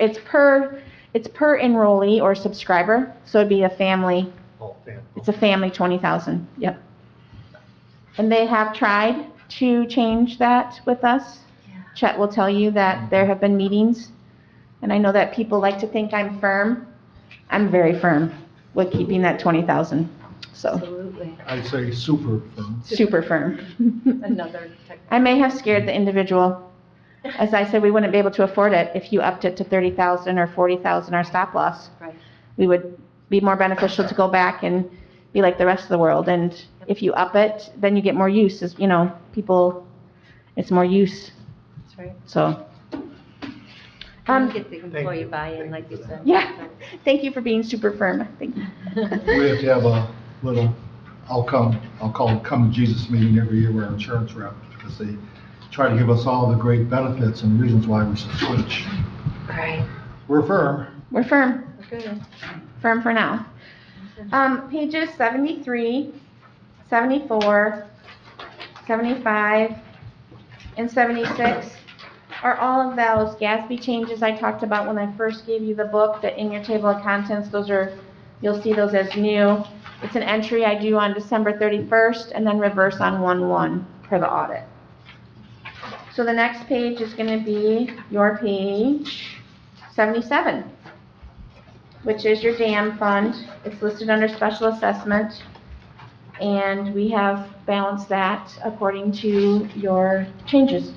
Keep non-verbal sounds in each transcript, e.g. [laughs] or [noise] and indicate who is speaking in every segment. Speaker 1: It's per, it's per enrollee or subscriber, so it'd be a family,
Speaker 2: all family.
Speaker 1: it's a family twenty thousand, yep. And they have tried to change that with us. Chet will tell you that there have been meetings, and I know that people like to think I'm firm. I'm very firm with keeping that twenty thousand, so,
Speaker 3: Absolutely.
Speaker 2: I say super firm.
Speaker 1: super firm.
Speaker 3: Another tech.
Speaker 1: I may have scared the individual. As I said, we wouldn't be able to afford it if you upped it to 30,000 or 40,000 our stop loss.
Speaker 3: Right.
Speaker 1: We would be more beneficial to go back and be like the rest of the world. And if you up it, then you get more use, is, you know, people, it's more use,
Speaker 3: That's right.
Speaker 1: so.
Speaker 3: Um,
Speaker 1: Um,
Speaker 3: get the employee
Speaker 2: you.
Speaker 3: buy-in, like
Speaker 2: Thank you
Speaker 3: you
Speaker 2: for
Speaker 3: said. [laughs]
Speaker 1: Yeah. thank you for being super firm. Thank you.
Speaker 2: We have to have a little, I'll come, I'll call it Come to Jesus meeting every year with our insurance rep, because they try to give us all the great benefits and reasons why we should switch.
Speaker 3: Right.
Speaker 2: We're firm,
Speaker 1: We're firm.
Speaker 3: Good.
Speaker 1: firm for now. Um, pages 73, 74, 75, and 76 are all of those GASB changes I talked about when I first gave you the book, that in your table of contents, those are, you'll see those as new. It's an entry I do on December 31st and then reverse on 1/1 per the audit. So the next page is gonna be your page 77 which is your dam fund. It's listed under special assessment. And we have balanced that according to your changes.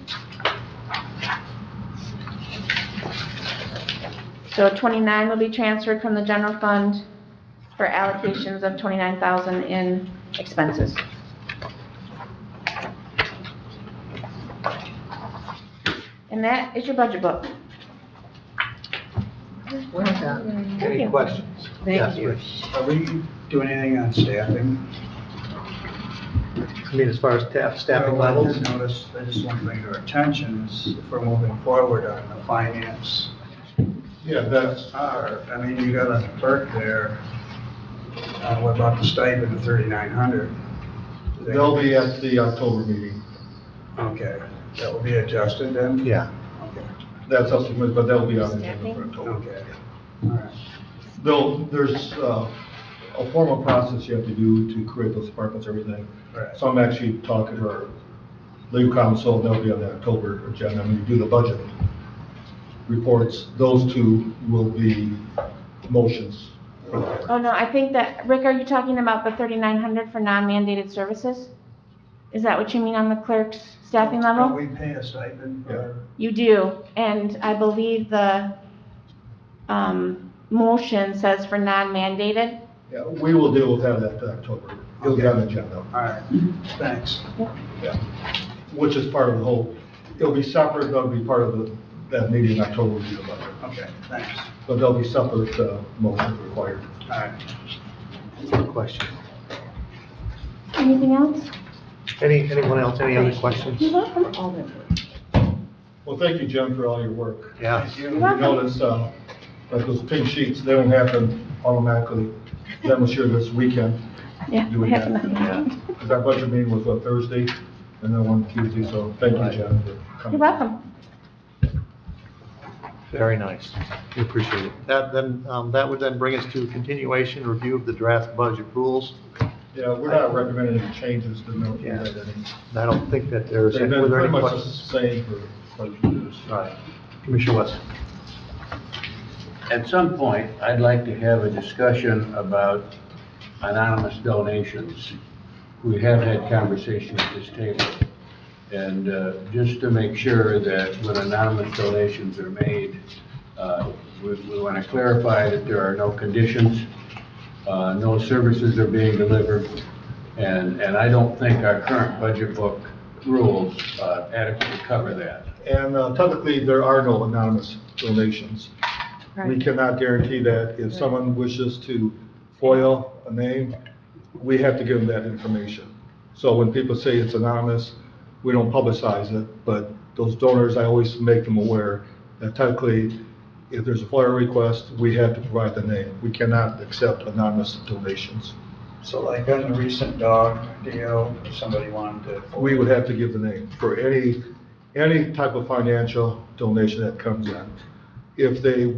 Speaker 1: So 29 will be transferred from the general fund for allocations of 29,000 in expenses. And that is your budget book.
Speaker 3: Well done.
Speaker 1: Thank
Speaker 4: Any
Speaker 1: you.
Speaker 4: questions? Yes,
Speaker 3: Thank you.
Speaker 4: Rich. Are we doing anything on staffing? I mean, as far as staff, staffing
Speaker 5: Well, I
Speaker 4: levels?
Speaker 5: just noticed, I just want to bring your attention, is if we're moving forward on the finance.
Speaker 2: yeah, that's,
Speaker 5: Our, I mean, you got a clerk there. Uh, what about the stipend of thirty-nine hundred?
Speaker 2: they'll be at the October meeting.
Speaker 5: Okay, that will be adjusted then?
Speaker 4: Yeah.
Speaker 5: Okay,
Speaker 2: That's up to them, but they'll be on the agenda for October.
Speaker 5: okay, all right.
Speaker 2: Though, there's, uh, a formal process you have to do to create those departments, everything.
Speaker 5: all right.
Speaker 2: So I'm actually talking to our legal counsel, they'll be on the October agenda, when you do the budget reports, those two will be motions. for the-
Speaker 1: Oh, no, I think that, Rick, are you talking about the thirty-nine hundred for non-mandated services? Is that what you mean on the clerk's staffing
Speaker 5: Don't
Speaker 1: level?
Speaker 5: we pay a stipend for?
Speaker 1: You do, and I believe the, um, motion says for non-mandated.
Speaker 2: Yeah, we will deal with that at the October, it'll be on the agenda,
Speaker 5: All right, thanks.
Speaker 2: which is part of the whole, it'll be separate, that'll be part of the, that meeting in October, will be the budget.
Speaker 5: Okay, thanks.
Speaker 2: but there'll be separate, uh, motions required.
Speaker 5: All right.
Speaker 4: Question.
Speaker 1: Anything else?
Speaker 4: Any, anyone else, any other questions?
Speaker 1: You're welcome.
Speaker 3: All the work.
Speaker 2: Well, thank you, Jim, for all your work.
Speaker 4: Yeah.
Speaker 5: Thank you.
Speaker 2: We notice, uh, like those pink sheets, they don't happen automatically. That was here this weekend,
Speaker 1: Yeah,
Speaker 2: You would
Speaker 1: we have
Speaker 2: have-
Speaker 1: another one.
Speaker 2: because our budget meeting was on Thursday, and then one Tuesday, so thank you, Jen, for
Speaker 1: You're
Speaker 2: coming.
Speaker 1: welcome.
Speaker 4: Very nice. We appreciate it. That then, um, that would then bring us to continuation review of the draft budget rules.
Speaker 2: Yeah, we're not recommending any changes to no,
Speaker 4: Yeah.
Speaker 2: they've been
Speaker 4: And I don't think that there's, were there
Speaker 2: pretty
Speaker 4: any
Speaker 2: much the
Speaker 4: questions?
Speaker 2: same for quite a few years.
Speaker 4: All right. Commissioner West.
Speaker 6: At some point, I'd like to have a discussion about anonymous donations. We have had conversation at this table. And uh, just to make sure that when anonymous donations are made, uh, we want to clarify that there are no conditions, uh, no services are being delivered, and, and I don't think our current budget book rules uh, adequately cover that.
Speaker 2: And uh, technically, there are no anonymous donations. We cannot guarantee that. If someone wishes to FOIL a name, we have to give them that information. So when people say it's anonymous, we don't publicize it, but those donors, I always make them aware that technically, if there's a FOIL request, we have to provide the name. We cannot accept anonymous donations.
Speaker 5: So like on the recent dog deal, somebody wanted to.
Speaker 2: We would have to give the name for any, any type of financial donation that comes in. if they